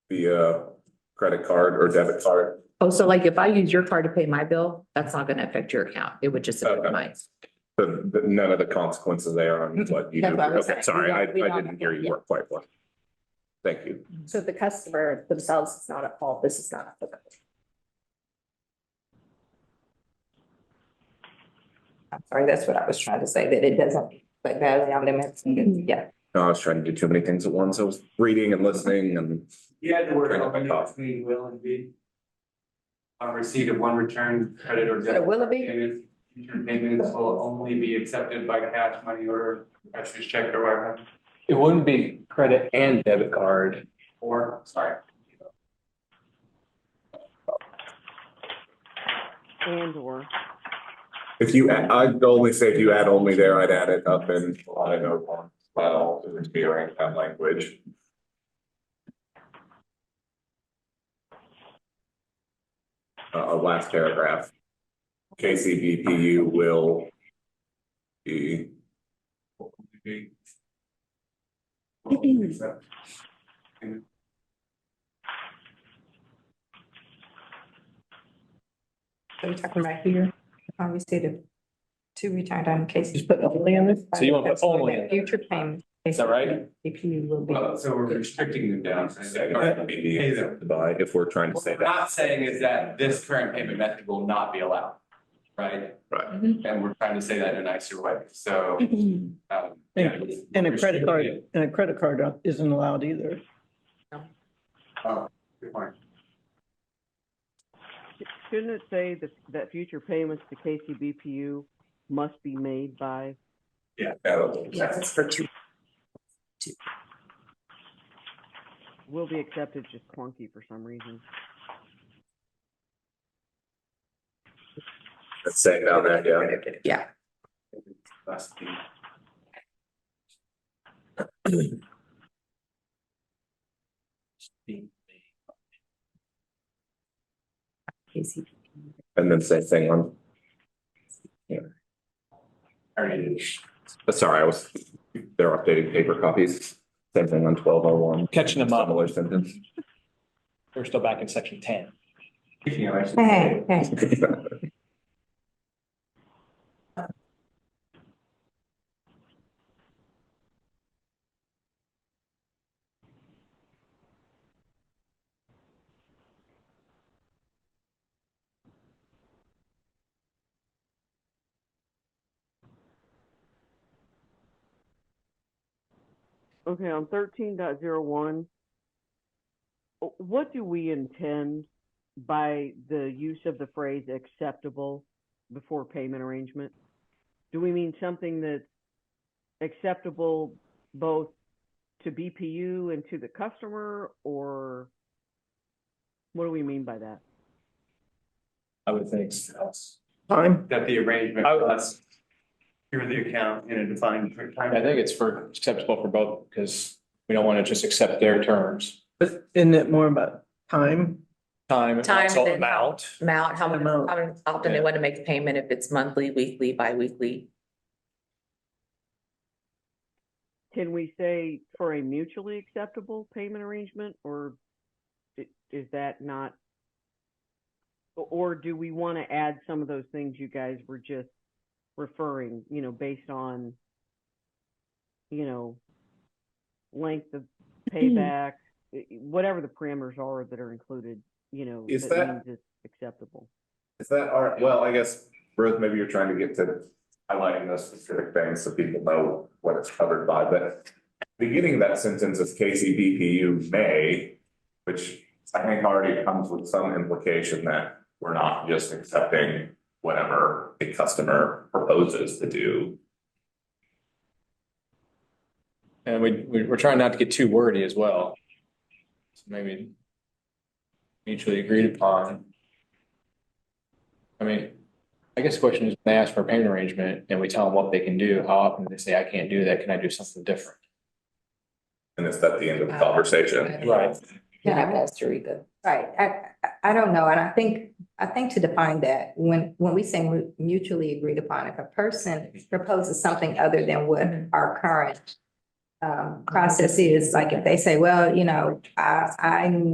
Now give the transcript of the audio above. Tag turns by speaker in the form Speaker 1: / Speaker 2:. Speaker 1: via credit card or debit card.
Speaker 2: Oh, so like if I use your card to pay my bill, that's not gonna affect your account. It would just affect
Speaker 1: Okay.
Speaker 2: mine.
Speaker 1: The, the- none of the consequences there on what you do.
Speaker 3: Mm-hmm. That's what I was
Speaker 1: Okay,
Speaker 3: saying.
Speaker 1: sorry, I, I
Speaker 3: We don't- we don't-
Speaker 1: didn't hear you work quite well. Thank you.
Speaker 3: So the customer themselves is not at fault, this is not applicable. I'm sorry, that's what I was trying to say, that it doesn't, like, that is our limits, and, yeah.
Speaker 1: No, I was trying to do too many things at once. I was reading and listening and
Speaker 4: You had the word
Speaker 1: Turn off my
Speaker 4: only
Speaker 1: thought.
Speaker 4: between will and be. On receipt of one return credit or
Speaker 3: So
Speaker 4: debit.
Speaker 3: will it be?
Speaker 4: Payments, future payments will only be accepted by cash, money order, cashier's check or whatever,
Speaker 5: It wouldn't be credit and debit card.
Speaker 4: or, sorry.
Speaker 6: And or.
Speaker 1: if you, add- I'd only say if you add only there, I'd add it up in. I don't know, well, hearing that language. Uh, last paragraph. KCBPU will be
Speaker 4: will only accept.
Speaker 3: Are we talking about here? I received a two returned on cases. Put only on this.
Speaker 5: So you wanna put only in there.
Speaker 3: Future payment.
Speaker 5: Is that right?
Speaker 3: If you will be.
Speaker 4: Well, so we're restricting them down. to
Speaker 1: second,
Speaker 4: second.
Speaker 1: will be accepted by, if we're trying to say
Speaker 4: What we're
Speaker 1: that.
Speaker 4: not saying is that this current payment method will not be allowed, right?
Speaker 1: Right.
Speaker 2: Mhm.
Speaker 4: And we're trying to say that in a nicer way, so. um, yeah, it's
Speaker 6: And a credit
Speaker 4: restricted.
Speaker 6: card, and a credit card isn't allowed either.
Speaker 4: Oh, good point.
Speaker 7: Shouldn't it say that, that future payments to KCBPU must be made by?
Speaker 4: Yeah.
Speaker 3: Yes, it's for two.
Speaker 7: Will be accepted, just clunky for some reason.
Speaker 1: Let's say it down there, yeah.
Speaker 3: Yeah,
Speaker 4: That's the.
Speaker 3: KCP.
Speaker 1: And then say thing on.
Speaker 4: All right.
Speaker 1: Uh, Sorry, I was, they're updating paper copies. Same thing on twelve oh one.
Speaker 5: Catching them up.
Speaker 1: Similar sentence.
Speaker 5: We're still back in section ten.
Speaker 4: Speaking of actually.
Speaker 3: Hey, hey,
Speaker 7: Okay, on thirteen point zero one, what do we intend by the use of the phrase acceptable before payment arrangement? Do we mean something that's acceptable both to BPU and to the customer, or what do we mean by that?
Speaker 5: I would think.
Speaker 6: Time,
Speaker 4: That the arrangement
Speaker 5: I-
Speaker 4: plus. Through the account in a defined time.
Speaker 5: I think it's for acceptable for both because we don't want to just accept their terms.
Speaker 6: but isn't it more about time?
Speaker 5: Time, and
Speaker 2: Time,
Speaker 5: also
Speaker 2: then-
Speaker 5: amount.
Speaker 2: Amount, how many-
Speaker 6: Amount.
Speaker 2: how often they
Speaker 5: Yeah.
Speaker 2: want to make the payment, if it's monthly, weekly, bi-weekly.
Speaker 7: Can we say for a mutually acceptable payment arrangement, or i- is that not? o- Or do we want to add some of those things you guys were just referring, you know, based on, you know, length of payback, i- i- whatever the parameters are that are included, you know,
Speaker 1: Is
Speaker 7: that
Speaker 1: that-
Speaker 7: means it's acceptable?
Speaker 1: Is that our, well, I guess, Ruth, maybe you're trying to get to highlighting those specific things so people know what it's covered by, but. Beginning of that sentence is KCBPU may, which I think already comes with some implication that we're not just accepting whatever the customer proposes to do.
Speaker 5: And we, we- we're trying not to get too wordy as well. So Maybe mutually agreed upon. I mean, I guess the question is, when they ask for a payment arrangement and we tell them what they can do, how often do they say, I can't do that, can I do something different?
Speaker 1: And it's at the end of the conversation.
Speaker 5: Right.
Speaker 3: Yeah.
Speaker 2: Yeah, that's very good.
Speaker 3: right, I, I- I don't know, and I think, I think to define that, when, when we say mu- mutually agreed upon, if a person proposes something other than what
Speaker 2: Mhm.
Speaker 3: our current um, process is, like if they say, well, you know, I, I'm